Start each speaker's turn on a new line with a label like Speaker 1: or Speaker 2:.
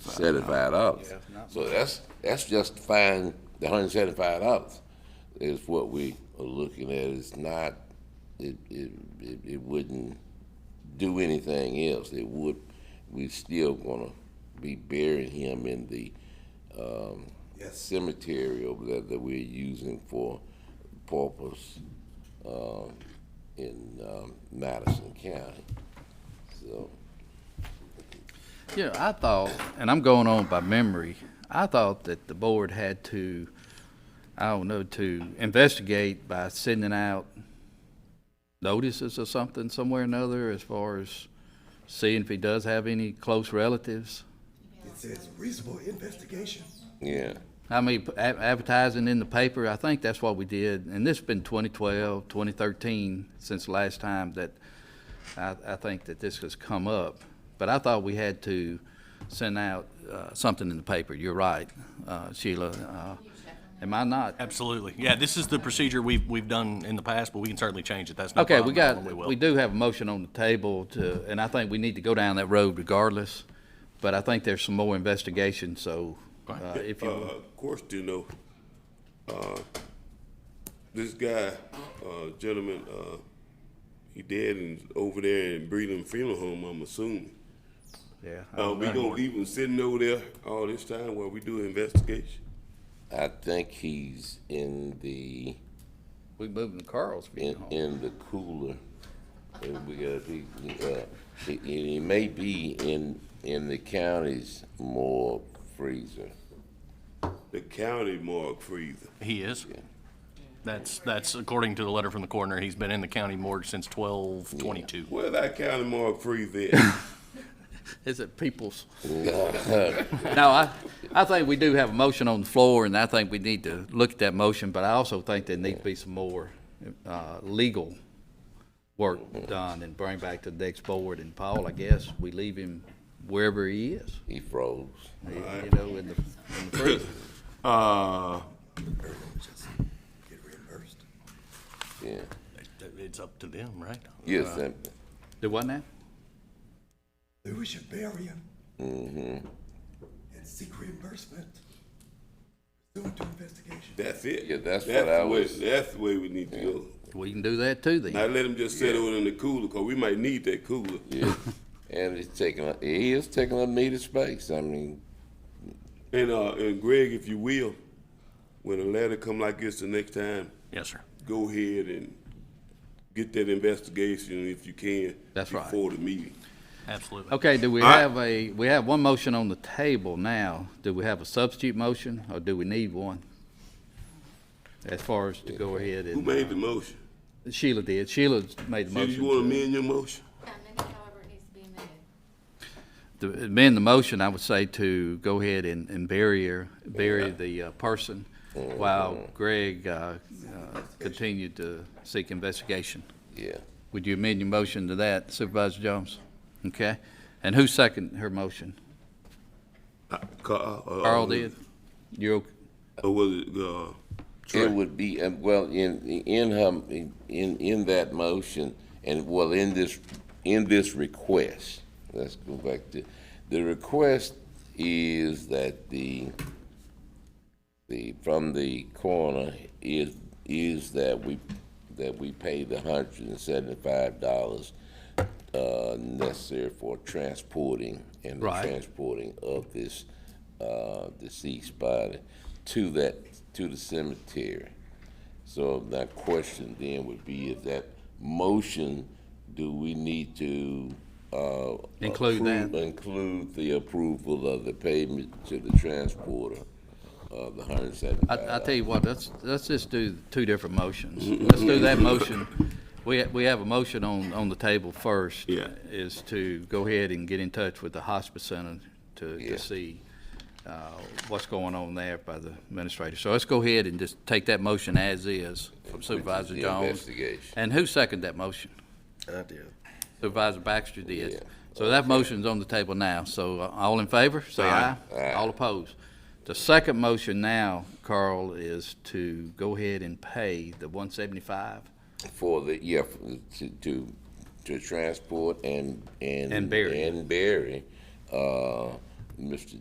Speaker 1: seventy-five dollars. So that's, that's just fine, the hundred and seventy-five dollars is what we are looking at, it's not, it, it, it, it wouldn't do anything else, it would, we still gonna be burying him in the, um, cemetery over there that we're using for purpose, um, in, um, Madison County, so.
Speaker 2: Yeah, I thought, and I'm going on by memory, I thought that the board had to, I don't know, to investigate by sending out notices or something somewhere or another as far as seeing if he does have any close relatives.
Speaker 3: It says reasonable investigation.
Speaker 1: Yeah,
Speaker 2: I mean, p- ad- advertising in the paper, I think that's what we did, and this has been 2012, 2013, since the last time that I, I think that this has come up. But I thought we had to send out uh, something in the paper, you're right, uh, Sheila. uh, Am I not?
Speaker 4: Absolutely. Yeah, this is the procedure we've, we've done in the past, but we can certainly change it. That's no
Speaker 2: Okay,
Speaker 4: problem.
Speaker 2: we
Speaker 4: and
Speaker 2: got,
Speaker 4: will.
Speaker 2: we do have a motion on the table to, and I think we need to go down that road regardless, but I think there's some more investigation, so uh, if you,
Speaker 5: Uh, of course, do know. Uh, this guy, uh, gentleman, uh, he dead and over there in Breeden Funeral Home. I'm assuming.
Speaker 2: yeah. I
Speaker 5: Uh,
Speaker 2: don't
Speaker 5: we
Speaker 2: know.
Speaker 5: gonna leave him sitting over there all this time while we do an investigation.
Speaker 1: I think he's in the,
Speaker 2: We moving to Carl's.
Speaker 1: in, in the cooler. And we got, he, uh, he, he may be in, in the county's morgue freezer.
Speaker 5: The county morgue freezer.
Speaker 4: He is. That's, that's according to the letter from the coroner. He's been in the county morgue since twelve twenty-two.
Speaker 5: Where that county morgue freezer? At?
Speaker 2: Is it people's? No, I, I think we do have a motion on the floor, and I think we need to look at that motion, but I also think there needs to be some more, uh, legal work done and bring back to the next board, and Paul, I guess, we leave him wherever he is,
Speaker 1: He froze.
Speaker 2: you know, in the, in the prison.
Speaker 5: uh,
Speaker 3: Get reimbursed.
Speaker 1: Yeah.
Speaker 4: It's up to them, right?
Speaker 1: Yes, and
Speaker 2: Do what now?
Speaker 3: Maybe we should bury him. And seek reimbursement. Pursuant to investigation.
Speaker 5: that's it.
Speaker 1: Yeah, that's what I
Speaker 5: the way,
Speaker 1: was-
Speaker 5: That's the way we need to go.
Speaker 2: We can do that too then.
Speaker 5: Not let him just sit over in the cooler, cause we might need that cooler.
Speaker 1: yeah. And it's taking, up- he is taking up needed space. I mean,
Speaker 5: And uh, and Greg, if you will, when a letter come like this the next time,
Speaker 4: Yes, sir.
Speaker 5: go ahead and get that investigation if you can.
Speaker 2: That's right.
Speaker 5: Before the meeting.
Speaker 4: Absolutely.
Speaker 2: Okay, do we
Speaker 5: I-
Speaker 2: have a, we have one motion on the table now. Do we have a substitute motion, or do we need one? As far as to go ahead and.
Speaker 5: Who made the motion?
Speaker 2: Sheila did. Sheila made the
Speaker 5: Did
Speaker 2: motion.
Speaker 5: you want to
Speaker 2: to-
Speaker 5: amend your motion?
Speaker 6: Yeah, amend it however it needs to be amended.
Speaker 2: to amend the motion, I would say to go ahead and, and bury her, bury the uh, person
Speaker 5: Mm-hmm.
Speaker 2: while Greg, uh, uh, continued to seek investigation.
Speaker 1: yeah.
Speaker 2: Would you amend your motion to that Supervisor Jones? Okay. And who seconded her motion?
Speaker 5: Carl, uh,
Speaker 2: Carl did? You're, ok-
Speaker 5: Or was it uh, Trey?
Speaker 1: It would be, um, well, in, in her, in, in that motion, and well, in this, in this request, let's go back to, the request is that the, the, from the coroner is, is that we, that we pay the hundred and seventy-five dollars uh, necessary for transporting and the
Speaker 2: Right.
Speaker 1: transporting of this uh, deceased body to that, to the cemetery. So that question then would be if that motion, do we need to, uh.
Speaker 2: Include that?
Speaker 1: approve- Include the approval of the payment to the transporter of the hundred and
Speaker 2: I,
Speaker 1: seventy-five
Speaker 2: I tell you what, let's, let's just do two different motions. Let's do that motion. We, we have a motion on, on the table first.
Speaker 5: Yeah.
Speaker 2: Is to go ahead and get in touch with the hospice center to,
Speaker 1: Yeah.
Speaker 2: to see, uh, what's going on there by the administrator. So let's go ahead and just take that motion as is from Supervisor
Speaker 1: the
Speaker 2: Jones.
Speaker 1: investigation.
Speaker 2: And who seconded that motion?
Speaker 3: I did.
Speaker 2: Supervisor Baxter
Speaker 1: Yeah.
Speaker 2: did. So that motion's on the table now. So uh, all in favor, say aye.
Speaker 1: Aye.
Speaker 2: All opposed. The second motion now, Carl, is to go ahead and pay the one seventy-five
Speaker 1: For the, yeah, for- to, to, to transport and, and.
Speaker 2: And bury.
Speaker 1: And bury, uh, Mr.